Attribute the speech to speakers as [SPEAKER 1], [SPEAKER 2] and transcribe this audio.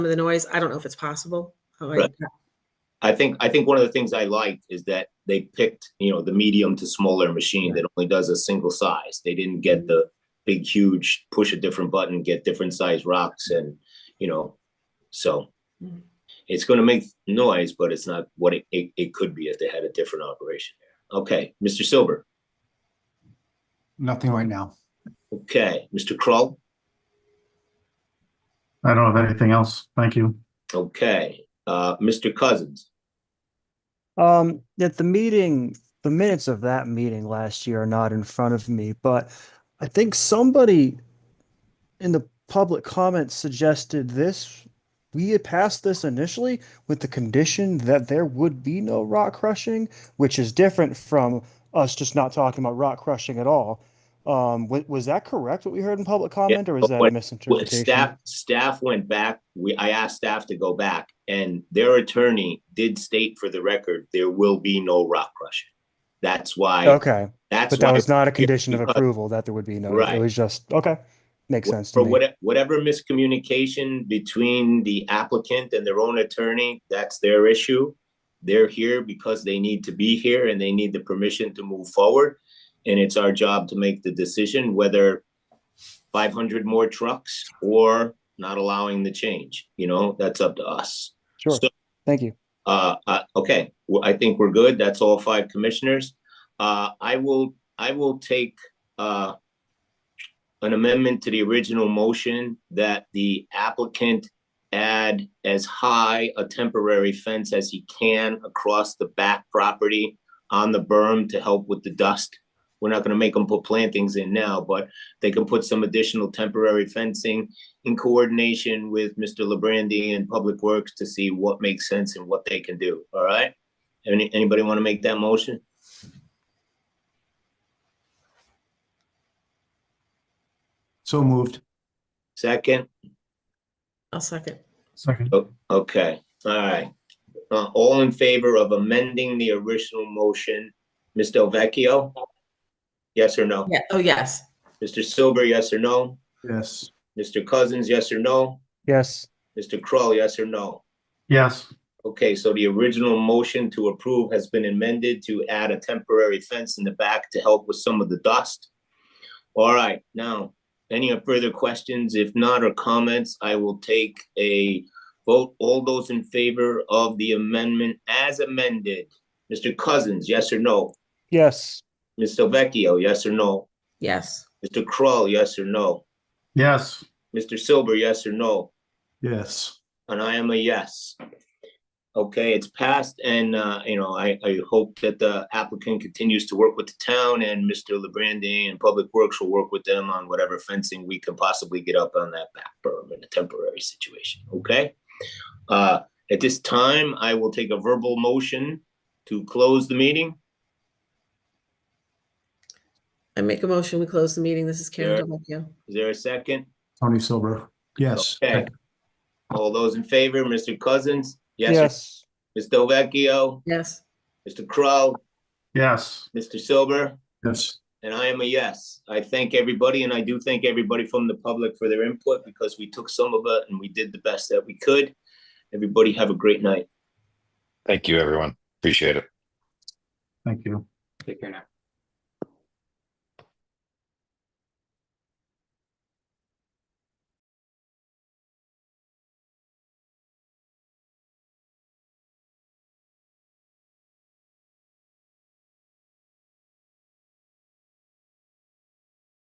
[SPEAKER 1] of the noise. I don't know if it's possible. Oh, I-
[SPEAKER 2] Right. I think, I think one of the things I liked is that they picked, you know, the medium to smaller machine that only does a single size. They didn't get the big, huge, push a different button, get different size rocks and, you know, so.
[SPEAKER 1] Mhm.
[SPEAKER 2] It's gonna make noise, but it's not what it, it, it could be if they had a different operation there. Okay, Mr. Silver,
[SPEAKER 3] Nothing right now.
[SPEAKER 2] okay, Mr. Kroll,
[SPEAKER 4] I don't have anything else. Thank you.
[SPEAKER 2] okay, uh, Mr. Cousins,
[SPEAKER 5] Um, at the meeting, the minutes of that meeting last year are not in front of me, but I think somebody in the public comments suggested this. We had passed this initially with the condition that there would be no rock crushing, which is different from us just not talking about rock crushing at all. Um, wa- was that correct, what we heard in public comment, or was
[SPEAKER 2] but
[SPEAKER 5] that
[SPEAKER 2] what-
[SPEAKER 5] a
[SPEAKER 2] what Well,
[SPEAKER 5] misinterpretation?
[SPEAKER 2] Staff, staff went back, we, I asked staff to go back, and their attorney did state for the record, there will be no rock crushing. That's why,
[SPEAKER 5] Okay,
[SPEAKER 2] that's
[SPEAKER 5] but that
[SPEAKER 2] why,
[SPEAKER 5] was not a condition of
[SPEAKER 2] because-
[SPEAKER 5] approval that there would be no,
[SPEAKER 2] Right.
[SPEAKER 5] it was just, okay, makes sense to
[SPEAKER 2] for
[SPEAKER 5] me.
[SPEAKER 2] what- whatever miscommunication between the applicant and their own attorney, that's their issue. They're here because they need to be here and they need the permission to move forward. And it's our job to make the decision whether five hundred more trucks or not allowing the change, you know, that's up to us.
[SPEAKER 5] Sure,
[SPEAKER 2] So-
[SPEAKER 5] thank you.
[SPEAKER 2] Uh, uh, okay, well, I think we're good. That's all five commissioners. Uh, I will, I will take, uh, an amendment to the original motion that the applicant add as high a temporary fence as he can across the back property on the berm to help with the dust. We're not gonna make them put plantings in now, but they can put some additional temporary fencing in coordination with Mr. Lebrandi and Public Works to see what makes sense and what they can do, all right? Any, anybody want to make that motion?
[SPEAKER 3] So moved.
[SPEAKER 2] Second?
[SPEAKER 1] I'll second.
[SPEAKER 4] Second.
[SPEAKER 2] O- Okay, all right. Uh, all in favor of amending the original motion, Ms. Del Vecchio? Yes or no?
[SPEAKER 1] Yeah, oh, yes.
[SPEAKER 2] Mr. Silver, yes or no?
[SPEAKER 3] Yes.
[SPEAKER 2] Mr. Cousins, yes or no?
[SPEAKER 5] Yes,
[SPEAKER 2] Mr. Kroll, yes or no?
[SPEAKER 4] Yes,
[SPEAKER 2] Okay, so the original motion to approve has been amended to add a temporary fence in the back to help with some of the dust. All right, now, any further questions? If not, or comments, I will take a vote. All those in favor of the amendment as amended? Mr. Cousins, yes or no?
[SPEAKER 5] yes,
[SPEAKER 2] Ms. Vecchio, yes or no?
[SPEAKER 1] Yes.
[SPEAKER 2] Mr. Kroll, yes or no?
[SPEAKER 4] yes,
[SPEAKER 2] Mr. Silver, yes or no?
[SPEAKER 3] Yes.
[SPEAKER 2] And I am a yes. Okay, it's passed and, uh, you know, I, I hope that the applicant continues to work with the town and Mr. Lebrandi and Public Works will work with them on whatever fencing we can possibly get up on that back berm in a temporary situation, okay? Uh, at this time, I will take a verbal motion to close the meeting.
[SPEAKER 1] I make a motion, we close the meeting. This is
[SPEAKER 2] Sure.
[SPEAKER 1] Karen Delvecchio.
[SPEAKER 2] Is there a second?
[SPEAKER 3] Tony Silver. Yes.
[SPEAKER 2] Okay. All those in favor, Mr. Cousins? Yes.
[SPEAKER 5] yes,
[SPEAKER 2] Ms. Delvecchio?
[SPEAKER 1] Yes.
[SPEAKER 2] Mr. Crow?
[SPEAKER 4] yes.
[SPEAKER 2] Mr. Silver?
[SPEAKER 3] Yes.
[SPEAKER 2] And I am a yes. I thank everybody and I do thank everybody from the public for their input because we took some of it and we did the best that we could. Everybody have a great night.
[SPEAKER 6] Thank you, everyone. Appreciate it.
[SPEAKER 4] Thank you.
[SPEAKER 7] Take care now.